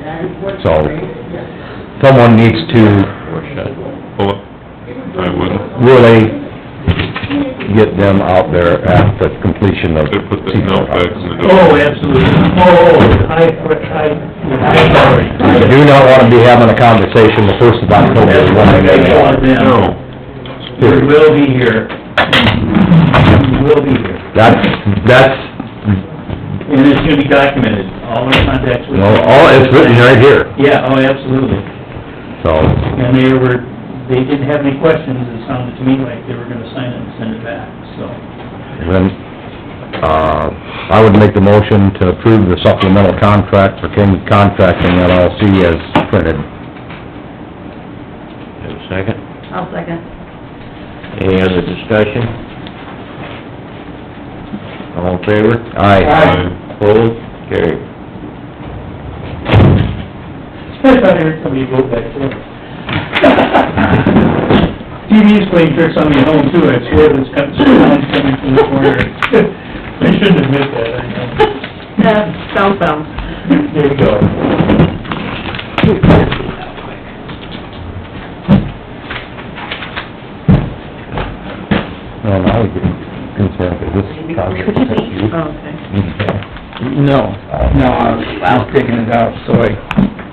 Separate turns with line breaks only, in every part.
so someone needs to
Or should. Well, I would.
really get them out there at the completion of.
They put the milk bags in the door.
Oh, absolutely. Oh, I, I, I'm sorry.
You do not wanna be having a conversation the first of October when they make it.
No.
We will be here. We will be here.
That's, that's,
And it's gonna be documented, all our contacts with...
you know, all, it's written right here,
Yeah, oh, absolutely.
so.
And they were, they didn't have any questions, it sounded to me like they were gonna sign it and send it back, so.
Then, uh, I would make the motion to approve the supplemental contract for King Contracting LLC as printed.
Second,
I'll second.
any other discussion? All in favor?
Aye.
I-
Opposed? Carried.
Especially when I heard somebody go back to it. TV's playing tricks on me at home too, I swear this comes, someone's coming from the corner. I shouldn't admit that, I know.
Yeah, sounds sounds.
There we go.
Well, now we get concerned with this contract.
Okay.
Oh.
Oh,
No, no, I was I was taking it out, so I...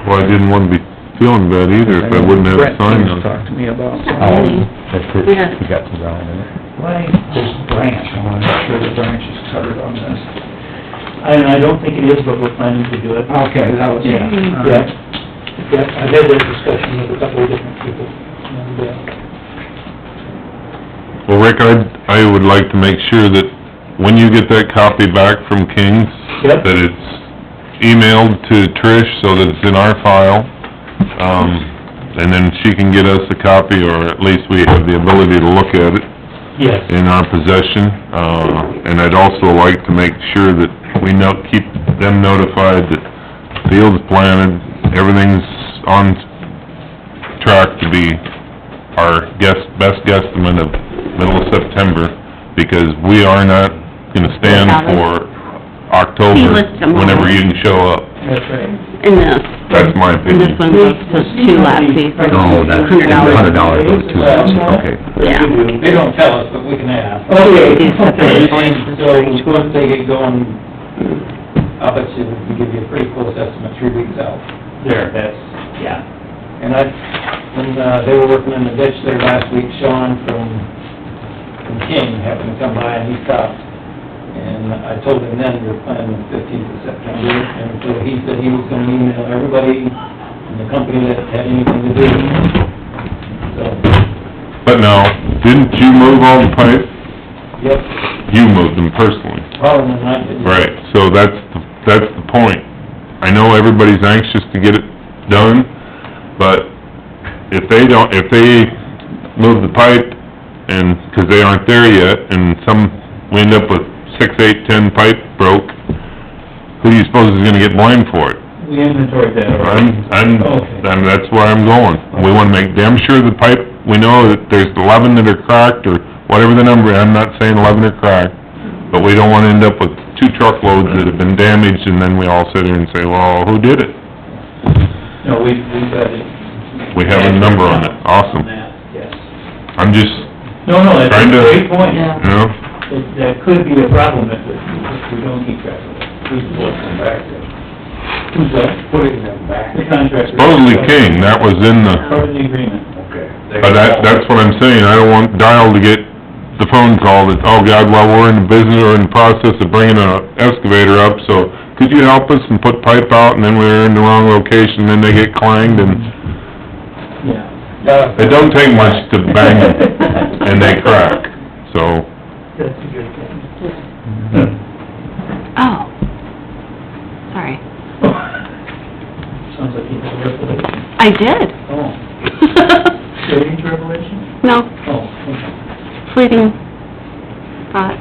Well, I didn't wanna be feeling bad either if I wouldn't have
Brett
signed
just
them.
talked to me about...
Oh, that's it, you got some ground in it.
Why this branch, I want to make sure the branch is covered on this.
I, I don't think it is, but we're planning to do it.
Okay, that was, yeah. all
Yeah,
right.
yeah, I've had that discussion with a couple of different people, and, uh,
Well, Rick, I, I would like to make sure that when you get that copy back from King's,
Yep.
that it's emailed to Trish so that it's in our file, um, and then she can get us a copy, or at least we have the ability to look at it.
yes.
in our possession, uh, and I'd also like to make sure that we know, keep them notified that field's planted, everything's on track to be our guess, best guesstimate of middle of September, because we are not gonna stand for October,
Fieldless tomorrow.
whenever you can show up.
That's right.
And this,
That's my
and this
opinion.
one goes to two lapsies, like
Oh, that's,
hundred
hundred
dollars.
dollars goes to, okay.
Yeah.
They don't tell us, but we can ask. Okay.
Okay.
So once they get going, I'll bet you we can give you a pretty close estimate three weeks out. There, that's, yeah. And I, when uh, they were working in the ditch there last week, Sean from, from King happened to come by and he stopped. And I told him then we were planning the fifteenth of September, and so he said he was gonna email everybody in the company that had anything to do. So,
But now, didn't you move all the pipe?
Yep,
You moved them personally.
probably not. but-
Right, so that's, the- that's the point. I know everybody's anxious to get it done, but if they don't, if they move the pipe and, 'cause they aren't there yet, and some, we end up with six, eight, ten pipe broke, who do you suppose is gonna get blamed for it?
We inventoried that already.
I'm, I'm,
Okay.
I'm, that's where I'm going. We wanna make damn sure the pipe, we know that there's eleven that are cracked, or whatever the number, I'm not saying eleven are cracked, but we don't wanna end up with two truckloads that have been damaged, and then we all sit here and say, well, who did it?
No, we, we got it.
We have a number on it, awesome.
On that, Yes.
I'm just,
No, no, that's a
Kinda.
great point.
Yeah.
you know,
That- That could be a problem if, if we don't keep track of it. Who's looking back Who's that? Putting them back. The contractor.
supposedly King, that was in the,
Part of the agreement.
but Uh, that, that's what I'm saying, I don't want Dial to get the phone call that, oh God, well, we're in the business, or in the process of bringing a excavator up, so could you help us and put pipe out, and then we're in the wrong location, then they get clanged, and
Yeah.
it don't take much to bang them, and they crack, so,
That's a good point.
Oh, sorry.
Sounds like you had a revelation.
I did.
Oh, strange revelation?
No,
Oh, okay.
fleeting thought.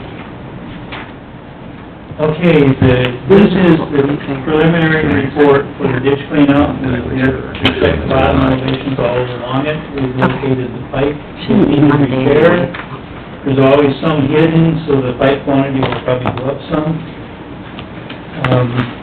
Okay, the, this is the preliminary report for the ditch cleanout, we have checked the bottom elevations all along it, we've located the pipe, we
Shouldn't be
need
Monday.
repair. There's always some hidden, so the pipe quantity will probably go up some. Um,